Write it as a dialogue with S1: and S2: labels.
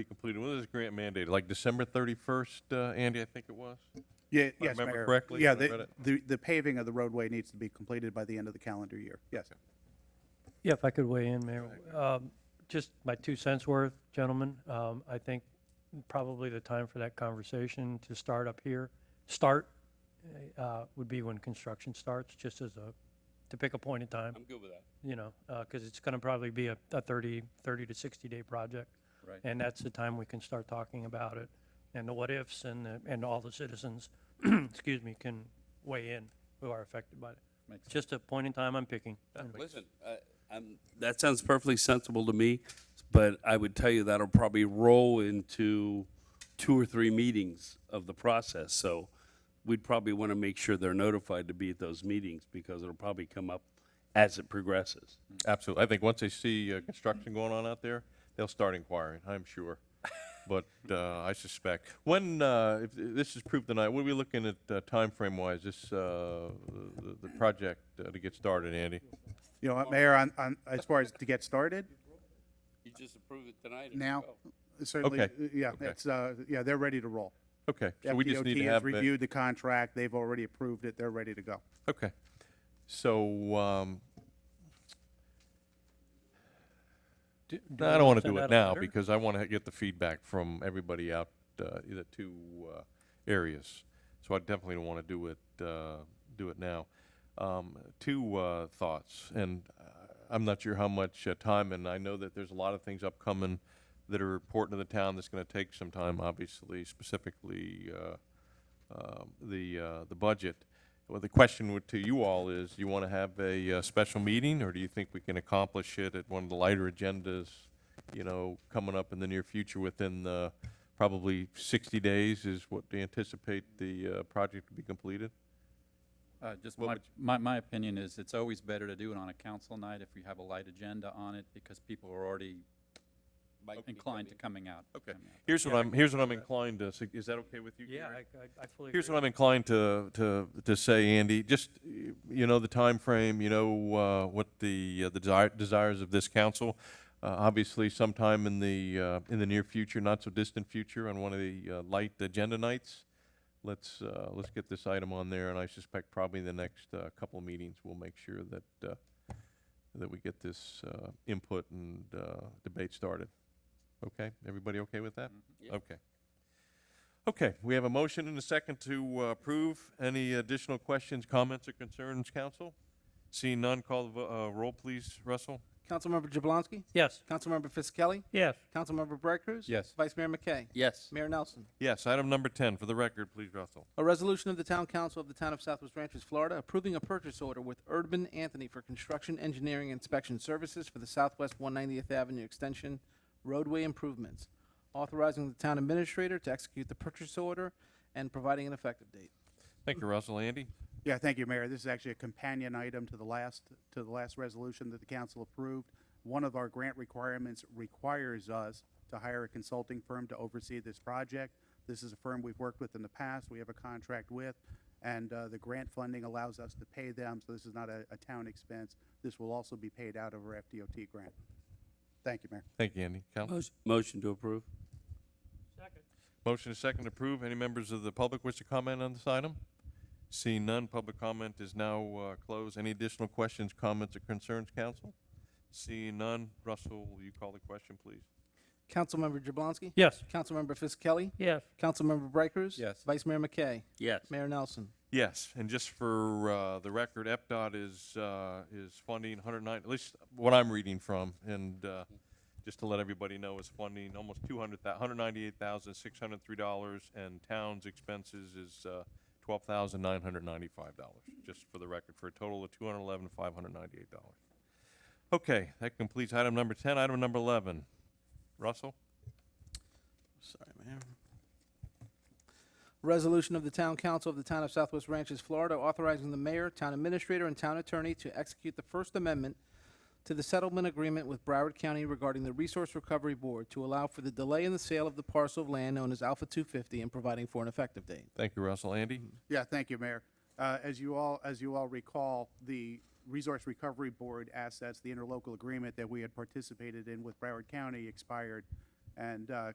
S1: be completed, when is this grant mandated, like December 31st, uh, Andy, I think it was?
S2: Yeah, yes,
S1: remember
S2: Mayor.
S1: correctly
S2: Yeah,
S1: when I read
S2: the,
S1: it.
S2: the the paving of the roadway needs to be completed by the end of the calendar year, yes.
S3: Yeah, if I could weigh in, Mayor. Um, Just my two cents worth, gentlemen. Um, I think probably the time for that conversation to start up here, start uh, would be when construction starts, just as a, to pick a point in time,
S4: I'm good with that.
S3: you know, because it's going to probably be a a 30, 30 to 60-day project.
S4: Right.
S3: And that's the time we can start talking about it and the what-ifs and, the- and all the citizens, excuse me, can weigh in who are affected by it.
S2: Makes sense.
S3: Just a point in time I'm picking.
S4: Listen, uh, I'm, that sounds perfectly sensible to me, but I would tell you that'll probably roll into two or three meetings of the process, so we'd probably want to make sure they're notified to be at those meetings, because it'll probably come up as it progresses.
S1: Absolutely. I think once they see uh, construction going on out there, they'll start inquiring, I'm sure. But uh, I suspect, when, uh, if this is approved tonight, what are we looking at uh, timeframe-wise, this, uh, the the project uh, to get started, Andy?
S2: You know what, Mayor, on, on, as far as to get started
S4: You just approved it tonight?
S2: now, certainly,
S1: Okay,
S2: yeah,
S1: okay.
S2: it's, uh, yeah, they're ready to roll.
S1: Okay, so we just need to
S2: FDOT has
S1: have. it-
S2: reviewed the contract, they've already approved it, they're ready to go.
S1: Okay. So, um, no, I don't want to do it now because I want to get the feedback from everybody out, uh, the two, uh, areas. So I definitely don't want to do it, uh, do it now. Um, two, uh, thoughts, and uh, I'm not sure how much uh, time, and I know that there's a lot of things upcoming that are important to the town that's going to take some time, obviously, specifically, uh, um, the, uh, the budget. Well, the question would- to you all is, you want to have a uh, special meeting, or do you think we can accomplish it at one of the lighter agendas, you know, coming up in the near future within the, probably 60 days is what they anticipate the uh, project to be completed?
S5: Uh, Just
S1: What
S5: my,
S1: would
S5: my, my opinion is it's always better to do it on a council night if you have a light agenda on it because people are already inclined to coming out.
S1: Okay.
S5: coming out.
S1: Here's what I'm, here's what I'm inclined to, sug- is that okay with you,
S3: Yeah,
S1: Gary?
S3: I- I, I fully agree.
S1: Here's what I'm inclined to, to, to say, Andy, just, y- you know, the time frame. you know, uh, what the, uh, the desi- desires of this council. Uh, obviously sometime in the, uh, in the near future, not so distant future, on one of the, uh, light agenda nights. Let's, uh, let's get this item on there, and I suspect probably the next, uh, couple of meetings, we'll make sure that, uh, that we get this, uh, input and, uh, debate started. Okay, everybody okay with that?
S4: Yep.
S1: Okay. Okay, we have a motion and a second to uh, approve. Any additional questions, comments, or concerns, council? Seeing none, call the vo- uh, roll, please, Russell.
S6: Councilmember Jablonski,
S3: Yes.
S6: Councilmember Fisickelli,
S3: Yes.
S6: Councilmember Bright Cruz.
S1: Yes.
S6: Vice Mayor McKay.
S4: Yes.
S6: Mayor Nelson.
S1: Yes, item number 10, for the record, please, Russell.
S6: A resolution of the Town Council of the Town of Southwest Ranches, Florida, approving a purchase order with Urban Anthony for construction engineering inspection services for the Southwest 190th Avenue Extension roadway improvements, authorizing the town administrator to execute the purchase order and providing an effective date.
S1: Thank you, Russell. Andy?
S2: Yeah, thank you, Mayor. This is actually a companion item to the last, to the last resolution that the council approved. One of our grant requirements requires us to hire a consulting firm to oversee this project. This is a firm we've worked with in the past, we have a contract with, and uh, the grant funding allows us to pay them, so this is not a, a town expense. This will also be paid out of our FDOT grant. Thank you, Mayor.
S1: Thank you, Andy. Council?
S4: Motion to approve?
S1: Motion is second to approve. Any members of the public wish to comment on this item? Seeing none, public comment is now uh, closed. Any additional questions, comments, or concerns, council? Seeing none, Russell, will you call the question, please?
S6: Councilmember Jablonski,
S3: Yes.
S6: Councilmember Fisickelli,
S3: Yes.
S6: Councilmember Bright Cruz.
S5: Yes.
S6: Vice Mayor McKay.
S4: Yes.
S6: Mayor Nelson.
S1: Yes, and just for uh, the record, FDOT is, uh, is funding 109, at least what I'm reading from, and uh, just to let everybody know, is funding almost 200, $198,603, and town's expenses is uh, $12,995, just for the record, for a total of $211,598. Okay, that completes item number 10. Item number 11, Russell?
S6: Sorry, Mayor. Resolution of the Town Council of the Town of Southwest Ranches, Florida, authorizing the mayor, town administrator, and town attorney to execute the First Amendment to the settlement agreement with Broward County regarding the Resource Recovery Board to allow for the delay in the sale of the parcel of land known as Alpha 250 and providing for an effective date.
S1: Thank you, Russell. Andy?
S2: Yeah, thank you, Mayor. Uh, As you all, as you all recall, the Resource Recovery Board assets, the interlocal agreement that we had participated in with Broward County expired, and uh,